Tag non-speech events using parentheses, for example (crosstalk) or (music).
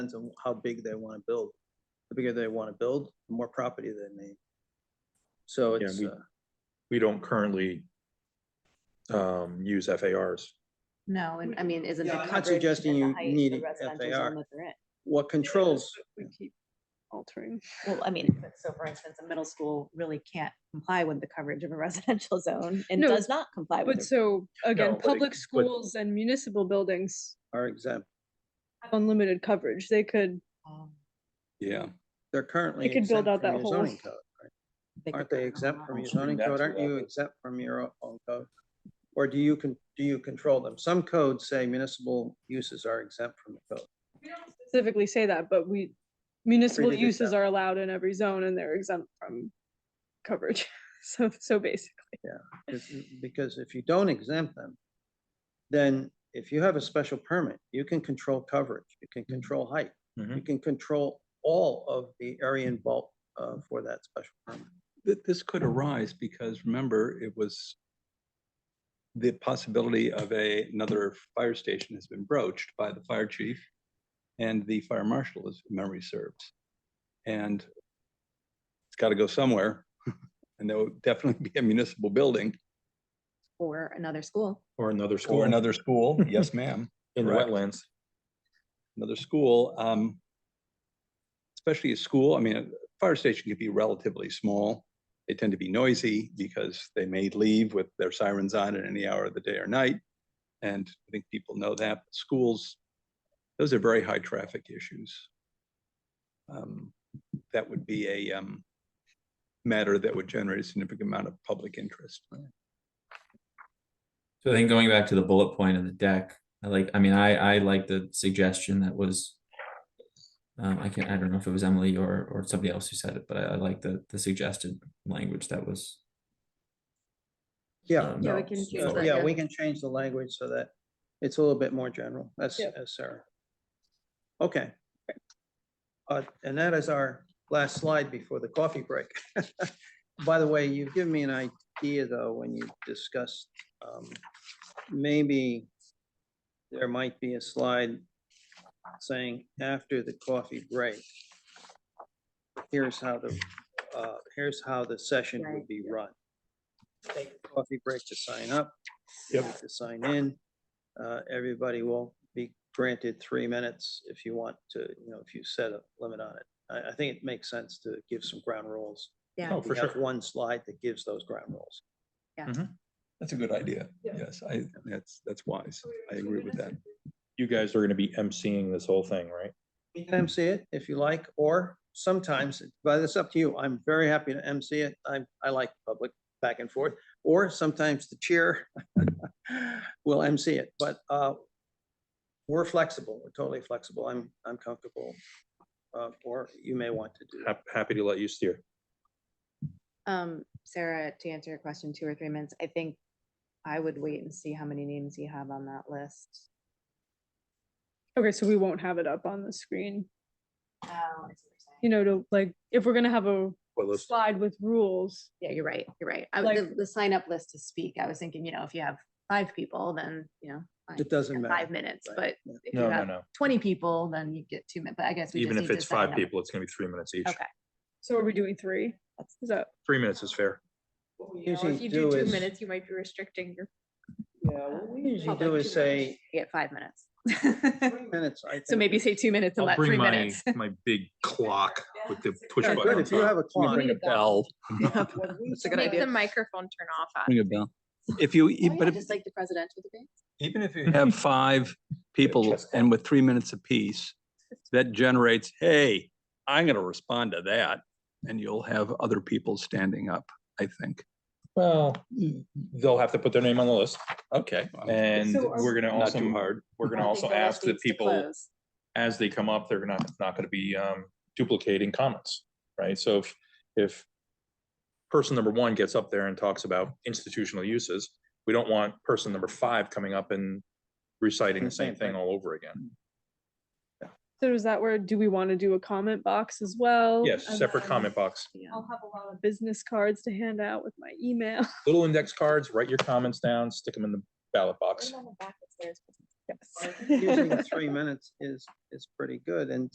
depends on how big they want to build. The bigger they want to build, the more property they need. So Yeah, it's, we- uh, we don't currently um, use FARs. No, and I mean, isn't the Yeah, I'm not coverage? suggesting and the you height of need the an residential FAR. zone that they're in? what controls, We keep altering. Well, I mean, but so for instance, a middle school really can't comply with the coverage of a (laughs) residential zone and No, does not comply with But it. so, No, again, but it- public but- schools and municipal buildings are exempt. have unlimited coverage. They could, Yeah, They're currently could build exempt out from that your whole- zoning code. Aren't they exempt from your zoning back code? to Aren't that, you but- exempt from your o- own code? Or do you can, do you control them? Some codes say municipal uses are exempt from the code. specifically say that, but we, municipal did it uses that are allowed in every zone and they're exempt from coverage. (laughs) So, so basic. If- Because if you don't exempt them, then if you have a special permit, you can control coverage, you can control height, you Mhm. can control all of the area involved uh, for that special permit. Th- this could arise because remember, it was the possibility of a, another fire station has been broached by the fire chief and the fire marshal, as memory serves. And it's got to go somewhere, (laughs) and there would definitely be a municipal building Or another school. Or another school. or another school. Yes, ma'am. In the correct. wetlands. another school, um, especially a school, I mean, a fire station could be relatively small. They tend to be noisy because they may leave with their sirens on at any hour of the day or night. And I think people know that. Schools, those are very high traffic issues. Um, That would be a um, matter that would generate a significant amount of public interest. So I think going back to the bullet point in the deck, I like, I mean, I, I like the suggestion that was. Um, I can't, I don't know if it was Emily or, or somebody else who said it, but I, I like the, the suggested language that was. Yeah, um, Yeah, we no, can so- change that, Yeah, yeah. we can change the language so that it's a little bit more general. That's, Yep. that's Sarah. Okay. Uh, and that is our last slide before the coffee break. (laughs) By the way, you've given me an idea though, when you discussed, um, maybe there might be a slide saying after the coffee break, here's how the, uh, here's how the session would Right. be run take a coffee break to sign up. Yep. To sign in. Uh, everybody will be granted three minutes if you want to, you know, if you set a limit on it. I, I think it makes sense to give some ground rules. Yeah. Oh, We for have sure. One slide that gives those ground rules. That's a good idea. Yeah. Yes, I, that's, that's wise. I agree with that. You guys are going to be emceeing this whole thing, right? You can MC it if you like, or sometimes, but it's up to you. I'm very happy to MC it. I, I like public back and forth. Or sometimes the chair (laughs) will MC it, but, uh, we're flexible. We're totally flexible. I'm, I'm comfortable. Uh, or you may want to do. that. Hap- Happy to let you steer. Um, Sarah, to answer your question, two or three minutes, I think I would wait and see how many names you have on that list. Okay, so we won't have it up on the screen, Oh, you know, to like, if we're gonna have a Well, let's- slide with rules, Yeah, you're right, you're right. I, Like- the, the sign up list to speak, I was thinking, you know, if you have five people, then, you know. fine, It doesn't you have Five matter, minutes, right, but yeah. if you No, no, have no. twenty people, then you get two minutes, but I guess. we Even just if need to it's sign five up. people, it's going to be three minutes each. Okay. so are we doing three? That's- Is that? Three minutes is fair. What we You know, usually if you do two is- minutes, you might be restricting your. Yeah, what we usually public do to is those. say, You Get five minutes. (laughs) three minutes. I (laughs) So think maybe is- say two minutes and I'll let bring three my, minutes. (laughs) my big clock with the push Yeah, button. Good, on if you have a top. Let me clock. Bring (laughs) a bell. What we Make sometimes- the microphone turn off. Ring a bell. If you, Oh, but yeah, if, Just like the presidential debate. Even if you you (laughs) have five people chest and with three minutes apiece, that generates, hey, I'm gonna respond to that. And you'll have other people standing up, I think. Well, they'll have to put their name on the list Okay. and So are- we're going to Not also, too hard. we're going to also ask that people as they come up, they're not, not gonna be um duplicating comments, right? So if, if person number one gets up there and talks about institutional uses, we don't want person number five coming up and reciting the same thing all over again. So is that where, do we want to do a comment box as well? Yes, And separate then comment box, I'll have a lot of business cards to hand out with my email. (laughs) little index cards, write your comments down, stick them in the ballot box. Yes. Using the three minutes is, is pretty good, and